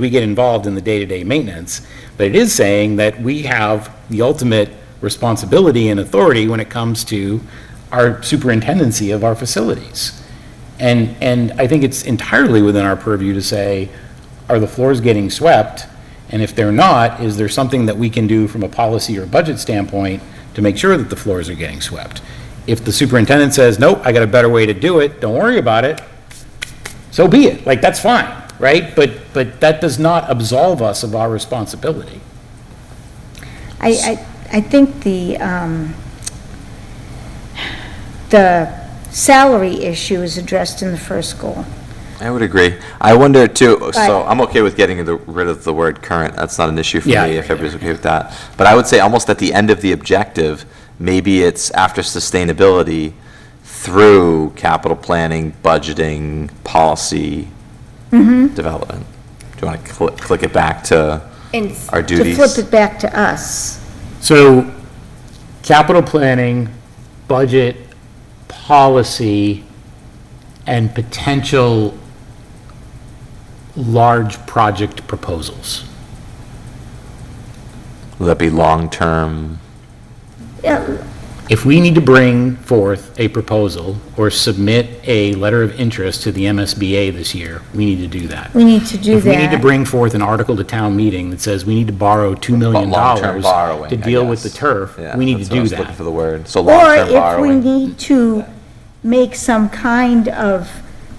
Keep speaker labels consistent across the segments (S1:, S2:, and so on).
S1: we get involved in the day-to-day maintenance, but it is saying that we have the ultimate responsibility and authority when it comes to our superintendency of our facilities. And, and I think it's entirely within our purview to say, are the floors getting swept? And if they're not, is there something that we can do from a policy or budget standpoint to make sure that the floors are getting swept? If the superintendent says, nope, I got a better way to do it, don't worry about it, so be it, like, that's fine, right? But, but that does not absolve us of our responsibility.
S2: I, I, I think the, um, the salary issue is addressed in the first goal.
S3: I would agree. I wonder too, so
S2: But-
S3: I'm okay with getting the- rid of the word current, that's not an issue for
S1: Yeah.
S3: me, if everybody's okay with that. But I would say almost at the end of the objective, maybe it's after sustainability through capital planning, budgeting, policy
S2: Mm-hmm.
S3: development. Do you want to click it back to
S4: And
S3: our
S2: To
S3: duties?
S2: flip it back to us,
S1: So, capital planning, budget, policy, and potential large project proposals.
S3: Will that be long-term?
S2: yeah,
S1: If we need to bring forth a proposal or submit a letter of interest to the MSBA this year, we need to do that.
S2: we need to do
S1: If we need to
S2: that.
S1: bring forth an article to town meeting that says we need to borrow $2 million
S3: Long-term borrowing,
S1: to
S3: I
S1: deal with the
S3: guess.
S1: turf,
S3: Yeah,
S1: we need to
S3: that's what I
S1: do
S3: was looking for
S1: that.
S3: the word, so
S2: Or
S3: long-term
S2: if we
S3: borrowing.
S2: need to make some kind of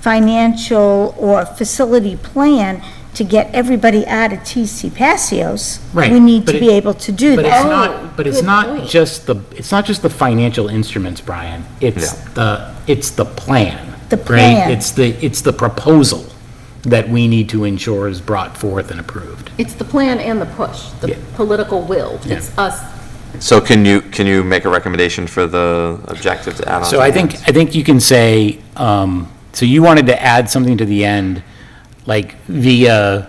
S2: financial or facility plan to get everybody out of TC Passios,
S1: Right,
S2: we need
S1: but
S2: to
S1: it-
S2: be able to do
S1: But it's
S2: that.
S1: not, but it's
S4: good
S1: not
S4: point.
S1: just the, it's not just the financial instruments, Brian. It's
S3: Yeah.
S1: the, it's the plan.
S2: The
S1: right?
S2: plan.
S1: It's the, it's the proposal that we need to ensure is brought forth and approved.
S4: it's the plan and the push,
S1: Yeah.
S4: the political will. It's us
S3: So can you, can you make a recommendation for the objective to add on?
S1: So
S3: to
S1: I
S3: that?
S1: think, I think you can say, um, so you wanted to add something to the end, like via,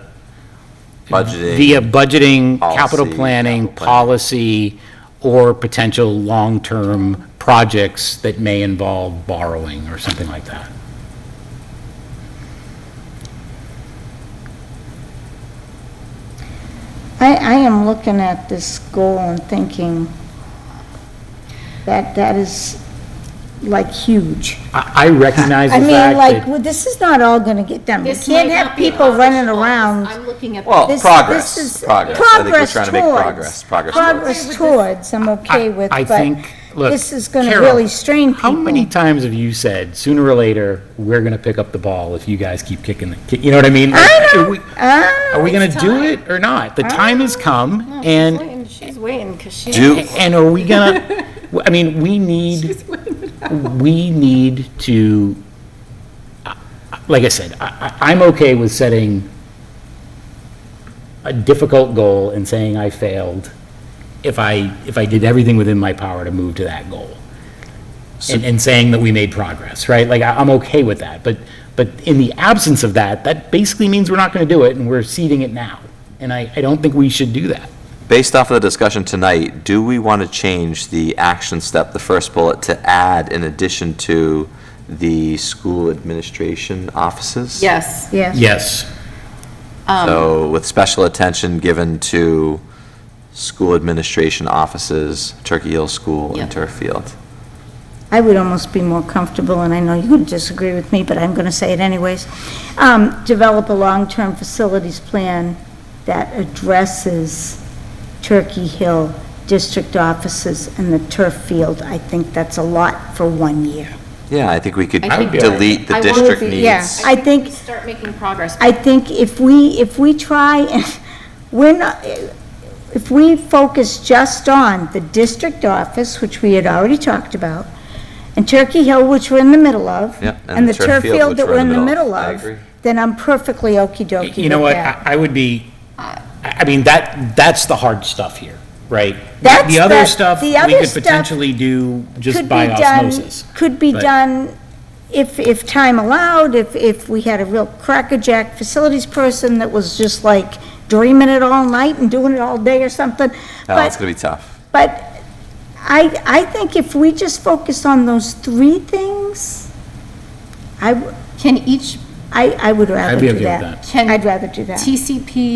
S3: Budgeting.
S1: via budgeting, capital
S3: Policy,
S1: planning,
S3: capital planning.
S1: policy, or potential long-term projects that may involve borrowing or something like that.
S2: I, I am looking at this goal and thinking that that is like huge.
S1: I, I recognize the
S2: I
S1: fact
S2: mean, like,
S1: that.
S2: well, this is not all gonna get done. We
S4: This
S2: can't
S4: might
S2: have
S4: not be
S2: people
S4: accomplished
S2: running
S4: all this.
S2: around.
S4: I'm looking at.
S3: Well,
S2: This-
S3: Oh, progress,
S2: this is-
S3: progress. I think we're
S2: progress
S3: trying to make
S2: towards-
S3: progress, progress towards.
S2: Progress towards, I'm okay with,
S1: I
S2: but
S1: think, look.
S2: this is gonna
S1: Carol,
S2: really strain
S1: How many
S2: people.
S1: times have you said, sooner or later, we're gonna pick up the ball if you guys keep kicking the, ki-" you know what I mean?
S2: I
S1: Like,
S2: know,
S1: are we-
S2: I
S1: Are we
S2: know.
S1: gonna do it or not? The time has come, and,
S4: She's waiting, because she.
S3: Do,
S1: and are we gonna, I mean, we need, we need to, like I said, I, I- I'm okay with setting a difficult goal and saying I failed if I, if I did everything within my power to move to that goal. And, and saying that we made progress, right? Like, I- I'm okay with that, but, but in the absence of that, that basically means we're not gonna do it, and we're seeding it now. And I, I don't think we should do that.
S3: based off of the discussion tonight, do we want to change the action step, the first bullet, to add in addition to the school administration offices?
S4: Yes.
S2: Yes,
S1: Yes.
S4: um,
S3: So with special attention given to school administration offices, Turkey Hill School and
S4: Yeah.
S3: Turf Field.
S2: I would almost be more comfortable, and I know you would disagree with me, but I'm gonna say it anyways. Um, develop a long-term facilities plan that addresses Turkey Hill district offices and the turf field. I think that's a lot for one year.
S3: Yeah, I think we could
S4: I think-
S3: delete
S4: I
S3: the
S4: would
S3: district
S4: be-
S3: needs.
S2: yeah. I think-
S4: Start making progress.
S2: I think if we, if we try, and we're not, if we focus just on the district office, which we had already talked about, and Turkey Hill, which we're in the middle of,
S3: Yep,
S2: and the turf field that we're in the middle
S3: I
S2: of,
S3: agree.
S2: then I'm perfectly okey-dokey with
S1: You know what,
S2: that.
S1: I I would be, I I mean, that, that's the hard stuff here, right?
S2: That's
S1: The other
S2: the-
S1: stuff,
S2: the
S1: we
S2: other
S1: could
S2: stuff
S1: potentially do just
S2: Could
S1: by
S2: be done-
S1: osmosis.
S2: Could be
S1: but-
S2: done, if, if time allowed, if, if we had a real crackerjack facilities person that was just like dreaming it all night and doing it all day or something.
S3: Oh,
S2: but-
S3: it's going to be tough.
S2: But I, I think if we just focus on those three things, I, w-
S4: Can each
S2: I, I would rather
S1: be okay
S2: do
S1: with
S2: that.
S1: that.
S4: Can-
S2: I'd rather do that.
S4: TCP